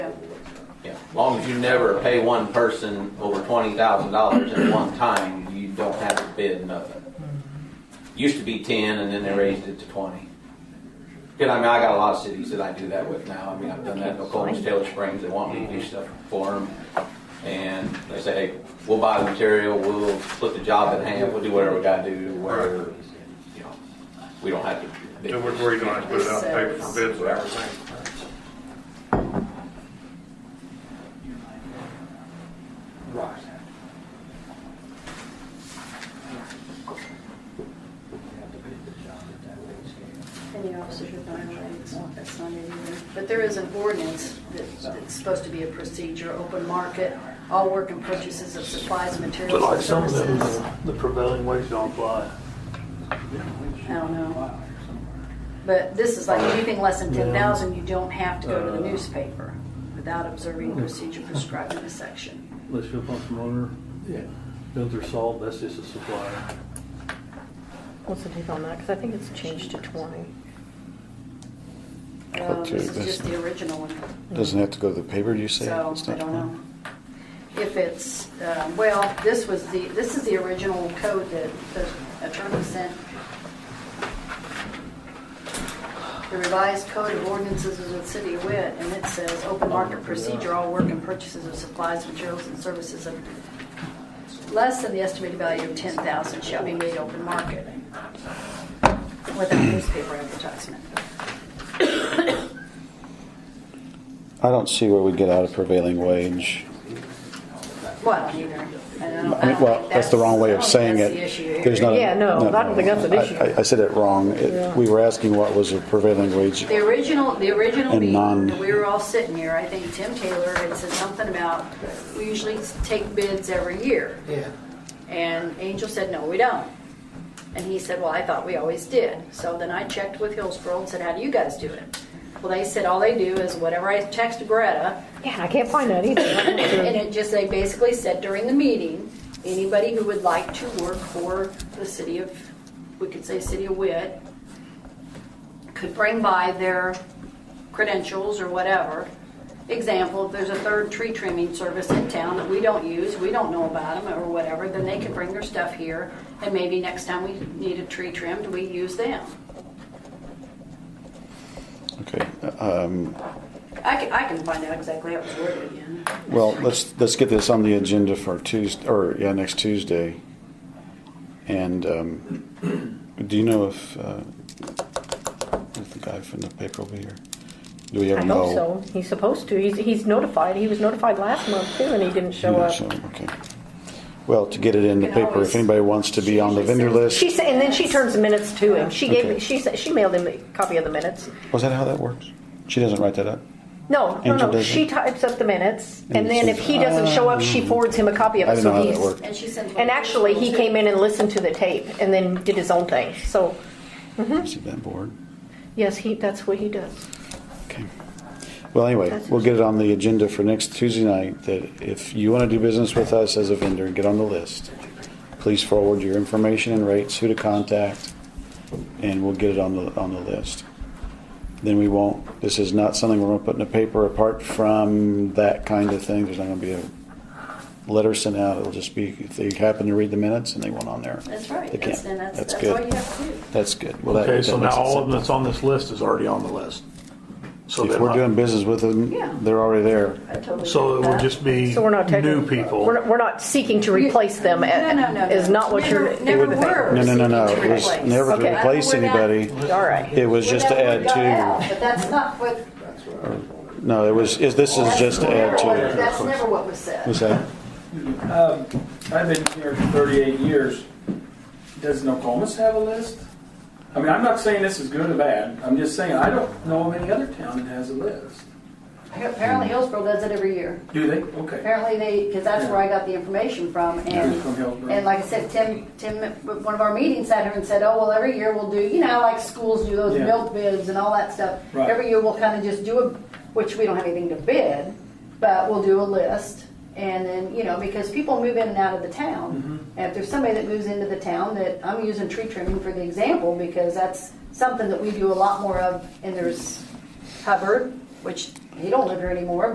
long as you never pay one person over twenty thousand dollars at one time, you don't have to bid nothing. Used to be ten, and then they raised it to twenty. Cause I mean, I got a lot of cities that I do that with now, I mean, I've done that in Oklahoma, Taylor Springs, they want me to do stuff for them. And they say, hey, we'll buy the material, we'll split the job in half, we'll do whatever we gotta do, whatever, you know, we don't have to. bid. And we're worried to put it out, paper for bids and everything. And the officers are violating, that's not in either. But there is an ordinance that- that's supposed to be a procedure, open market, all work and purchases of supplies, materials, But like and some of them, services. the prevailing wage don't apply. I don't know. But this is like anything less than ten thousand, you don't have to go to the newspaper without observing the procedure prescribed in this section. Unless you're a pump promoter, Yeah. builder salt, that's just a supplier. What's the take on that? Because I think it's changed to 20. uh, Um, Okay, This is that's- just the original one, Doesn't have to go to the paper, do you say? so It's I not- don't know. If it's, uh, well, this was the, this is the original code that the attorney sent. The revised code of ordinances of the city of Witt, and it says, "Open market procedure, all work and purchases of supplies, materials, and services of less than the estimated value of 10000 shall be made open market without newspaper advertisement." I don't see where we get out of prevailing wage. Well, I don't either. I don't- I I mean, don't Well, think that's the wrong way I of don't think saying Uh, that's it. the issue There's here. not a- Yeah, no, I don't think that's an I- issue. I- I said it wrong. It- Yeah. We were asking what was a prevailing wage. The original, the original And meeting, non- that we were all sitting here, I think Tim Taylor had said something about, we usually take bids every year. Yeah. And Angel said, no, we don't. And he said, well, I thought we always did. So then I checked with Hillsborough and said, how do you guys do it? Well, they said, all they do is whatever I text Greta, Yeah, and I can't find that either. I don't and know. it just, they basically said during the meeting, anybody who would like to work for the city of, we could say city of Witt, could bring by their credentials or whatever. Example, if there's a third tree trimming service in town that we don't use, we don't know about them or whatever, then they can bring their stuff here, and maybe next time we need a tree trimmed, we use them. Okay. um, I can, I can find out exactly how it was worded again. Well, let's, let's get this on the agenda for Tuesday, or, yeah, next Tuesday. And um, do you know if, uh, if the guy from the paper will be here? Do we I ever know? hope so. He's supposed to. He's, he's notified. He was notified last month too, and he didn't show up. So, okay. Well, to get it in the You can paper, always- if anybody wants to be on the vendor list, She said, and then she turns the minutes to him. She gave, Okay. me. she said, she mailed him a copy of the minutes. was that how that works? She doesn't write that up? No, no, Angel no. doesn't? She types up the minutes, and And then she- if he doesn't show up, she forwards him a copy of Uh, I it. don't So know how that he's- worked. And she sent. And actually, he came in and listened to the tape, and then did his own thing. So, Hmm? Is it that board? yes, he, that's what he does. Okay. Well, anyway, That's- we'll get it on the agenda for next Tuesday night, that if you want to do business with us as a vendor, get on the list. Please forward your information and rates, who to contact, and we'll get it on the, on the list. Then we won't, this is not something we're going to put in the paper apart from that kind of thing. There's not going to be a letter sent out. It'll just be, if they happen to read the minutes and they want on there. That's right, They can't. that's, and that's, That's that's good. all you have to do. That's good. Well, that- Okay, so that makes now it all of them simple. that's on this list is already on the list. So If they're we're not- doing business with them, Yeah. they're already there. I totally So it agree with would that. just be So we're not taking- new people. We're not, we're not seeking to replace them. No, no, no, no. Is not what you're. Never- never were. No, no, no, no. It was Replace. never Okay. to replace We're not- anybody. All right. It was just to Whatever add we got out, to. But that's not what. No, it was, is- this is that's just to never add what- to. That's never what was said. What's that? I've been here for 38 years. Does Nokomis have a list? I mean, I'm not saying this is good or bad. I'm just saying I don't know of any other town that has a list. Apparently Hillsborough does it every year. Do they? Okay. Apparently they, because that's where I got the information from and. From Hillsborough. And like I said, Tim, Tim, at one of our meetings sat here and said, oh, well, every year we'll do, you know, like schools do those Yeah. milk bids and all that stuff. Right. Every year we'll kind of just do a, which we don't have anything to bid, but we'll do a list. And then, you know, because people move in and out of the town. Mm-hmm. And if there's somebody that moves into the town that, I'm using tree trimming for the example because that's something that we do a lot more of. And there's Hubbard, which he don't live here anymore,